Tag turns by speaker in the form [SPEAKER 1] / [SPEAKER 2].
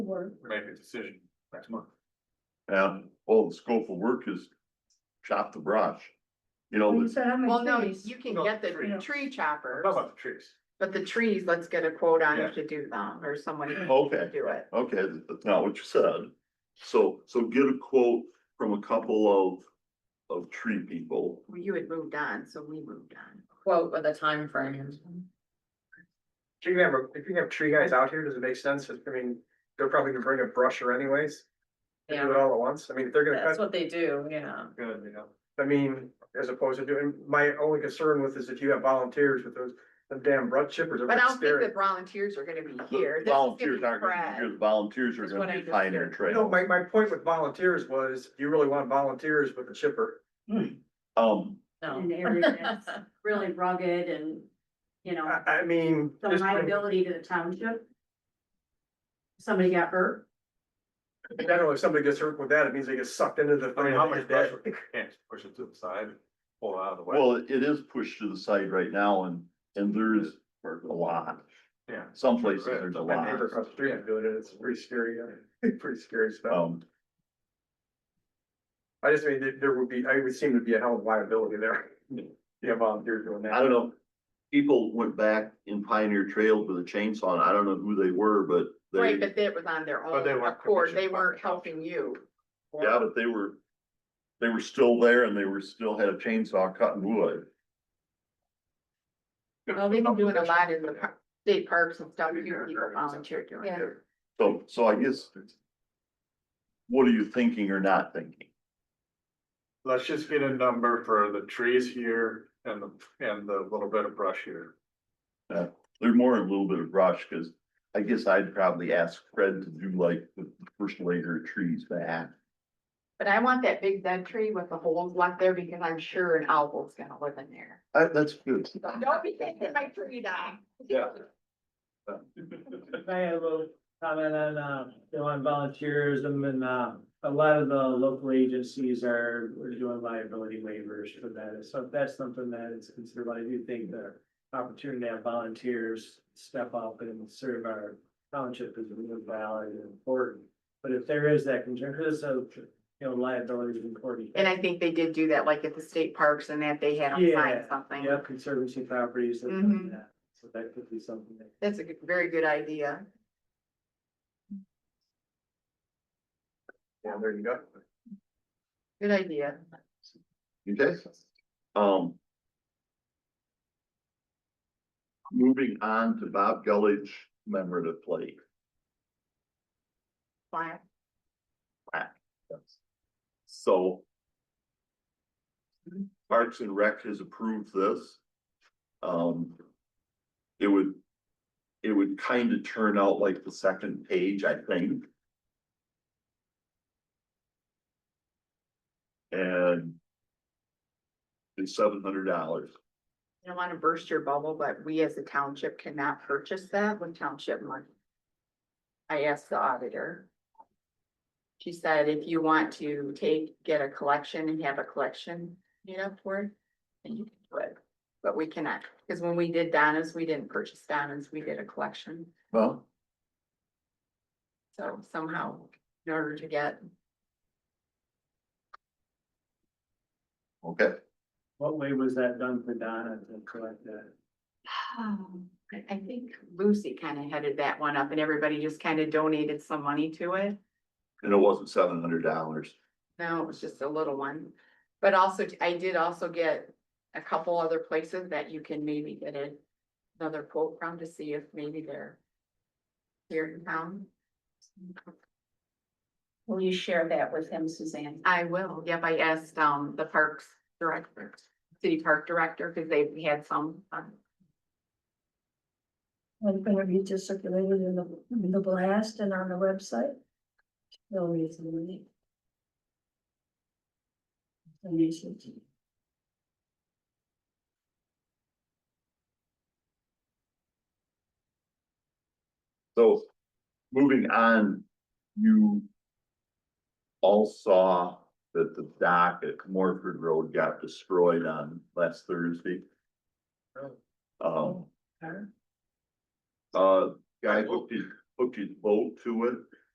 [SPEAKER 1] board.
[SPEAKER 2] we make a decision next month.
[SPEAKER 3] And all the scope of work is chop the brush. You know,
[SPEAKER 1] You
[SPEAKER 3] it's
[SPEAKER 1] said how
[SPEAKER 4] Well, no,
[SPEAKER 1] many trees?
[SPEAKER 4] you can
[SPEAKER 2] No,
[SPEAKER 4] get
[SPEAKER 2] tree.
[SPEAKER 4] the tree
[SPEAKER 2] How
[SPEAKER 4] chopper,
[SPEAKER 2] about the trees?
[SPEAKER 4] but the trees, let's get a quote on
[SPEAKER 2] Yeah.
[SPEAKER 4] if to do them or someone
[SPEAKER 3] Okay.
[SPEAKER 4] to do it.
[SPEAKER 3] okay, that's not what you said. So, so get a quote from a couple of, of tree people.
[SPEAKER 4] Well, You had moved on, so we moved on.
[SPEAKER 5] quote with a time frame.
[SPEAKER 6] If you have, a- if you have tree guys out here, does it make sense? I mean, they're probably gonna bring a brusher anyways. They Do it all at once. I mean, if they're gonna
[SPEAKER 5] That's
[SPEAKER 6] cut.
[SPEAKER 5] what they do, yeah.
[SPEAKER 6] Good, you know. I mean, as opposed to doing, my only concern with is if you have volunteers with those, them damn brush chippers. they're
[SPEAKER 4] But
[SPEAKER 6] gonna
[SPEAKER 4] I don't think
[SPEAKER 6] stare
[SPEAKER 4] the
[SPEAKER 6] at-
[SPEAKER 4] volunteers are gonna be
[SPEAKER 3] The
[SPEAKER 4] here. This is gonna
[SPEAKER 3] Volunteers
[SPEAKER 4] be
[SPEAKER 3] aren't gonna
[SPEAKER 4] Fred.
[SPEAKER 3] be here, the volunteers are
[SPEAKER 4] That's
[SPEAKER 3] gonna
[SPEAKER 4] what
[SPEAKER 3] be
[SPEAKER 4] I just
[SPEAKER 3] pioneer
[SPEAKER 4] heard.
[SPEAKER 3] trail.
[SPEAKER 6] No, my, my point with volunteers was, you really want volunteers with a chipper.
[SPEAKER 3] Um,
[SPEAKER 5] No.
[SPEAKER 7] in the area that's really rugged and, you know,
[SPEAKER 6] I, I mean.
[SPEAKER 7] the
[SPEAKER 6] just-
[SPEAKER 7] liability to the township. Somebody got hurt,
[SPEAKER 6] I don't know, if somebody gets hurt with that, it means they get sucked into the.
[SPEAKER 2] I mean, how much brush,
[SPEAKER 6] that-
[SPEAKER 2] we can't just push it to the side, and pull it out of the way.
[SPEAKER 3] well, it is pushed to the side right now and, and there's a lot.
[SPEAKER 2] Yeah.
[SPEAKER 3] Some places there's a
[SPEAKER 6] My
[SPEAKER 3] lot.
[SPEAKER 6] neighbor across the street is doing it, it's pretty scary, uh, pretty scary stuff.
[SPEAKER 3] Um,
[SPEAKER 6] I just mean, there, there would be, I would seem to be a hell of a liability there. Yeah, volunteers doing that.
[SPEAKER 3] I don't know, people went back in Pioneer Trail with a chainsaw, and I don't know who they were, but they,
[SPEAKER 4] Right, but that was on their
[SPEAKER 2] But they
[SPEAKER 4] own
[SPEAKER 2] weren't
[SPEAKER 4] accord.
[SPEAKER 2] commissioned by
[SPEAKER 4] They
[SPEAKER 2] the
[SPEAKER 4] weren't
[SPEAKER 2] township.
[SPEAKER 4] helping you.
[SPEAKER 3] yeah, but they were, they were still there and they were, still had a chainsaw cutting wood.
[SPEAKER 4] Well, they've been doing a lot in the par- state parks and stuff. Here people volunteer doing
[SPEAKER 5] Yeah.
[SPEAKER 4] it.
[SPEAKER 3] So, so I guess, what are you thinking or not thinking?
[SPEAKER 2] Let's just get a number for the trees here and the, and the little bit of brush here.
[SPEAKER 3] They're more a little bit of brush, cause I guess I'd probably ask Fred to do like the first layer of trees back.
[SPEAKER 4] But I want that big dead tree with the holes left there because I'm sure an owl's gonna live in there.
[SPEAKER 3] Uh, that's good.
[SPEAKER 4] So Don't be taking my tree down.
[SPEAKER 3] Yeah.
[SPEAKER 8] I have a little comment on, uh, you know, on volunteerism and, uh, a lot of the local agencies are, are doing liability waivers for that. So if that's something that is considered, I do think the opportunity to have volunteers step up and serve our township is really valid and important. But if there is that concern, because of, you know, liability is important.
[SPEAKER 4] And I think they did do that, like at the state parks and that they had them sign
[SPEAKER 8] Yeah,
[SPEAKER 4] something.
[SPEAKER 8] Yeah, conservancy properties. that-
[SPEAKER 4] Mhm.
[SPEAKER 8] yeah. So that could be something that.
[SPEAKER 4] That's a good- very good idea.
[SPEAKER 6] Yeah, there you go.
[SPEAKER 4] Good idea.
[SPEAKER 3] Okay, um. Moving on to Bob Gullich commemorative plate.
[SPEAKER 4] Fine.
[SPEAKER 3] So. Parks and Rec has approved this. Um. It would. It would kind of turn out like the second page, I think. And. It's seven hundred dollars.
[SPEAKER 4] I don't wanna burst your bubble, but we as a township cannot purchase that with township money. I asked the auditor. She said, if you want to take, get a collection and have a collection made up for it, then you can do it. But we cannot, because when we did Donna's, we didn't purchase Donna's, we did a collection.
[SPEAKER 3] Well,
[SPEAKER 4] So somehow, in order to get
[SPEAKER 3] okay,
[SPEAKER 8] What way was that done for Donna to collect that?
[SPEAKER 4] Um, I I think Lucy kind of headed that one up and everybody just kind of donated some money to it.
[SPEAKER 3] and it wasn't seven hundred dollars.
[SPEAKER 4] No, it was just a little one. But also, I did also get a couple other places that you can maybe get a- another quote from to see if maybe they're here in town.
[SPEAKER 7] will you share that with him, Suzanne?
[SPEAKER 4] I will. Yep, I asked, um, the parks director, city park director, because they we had some. um,
[SPEAKER 1] It's gonna be just circulated in the, in the blast and on the website. No reason, really. No reason.
[SPEAKER 3] So, moving on, you all saw that the dock at Morford Road got destroyed on last Thursday. Um,
[SPEAKER 1] Huh?
[SPEAKER 3] uh, guy hooked his, hooked his boat to it.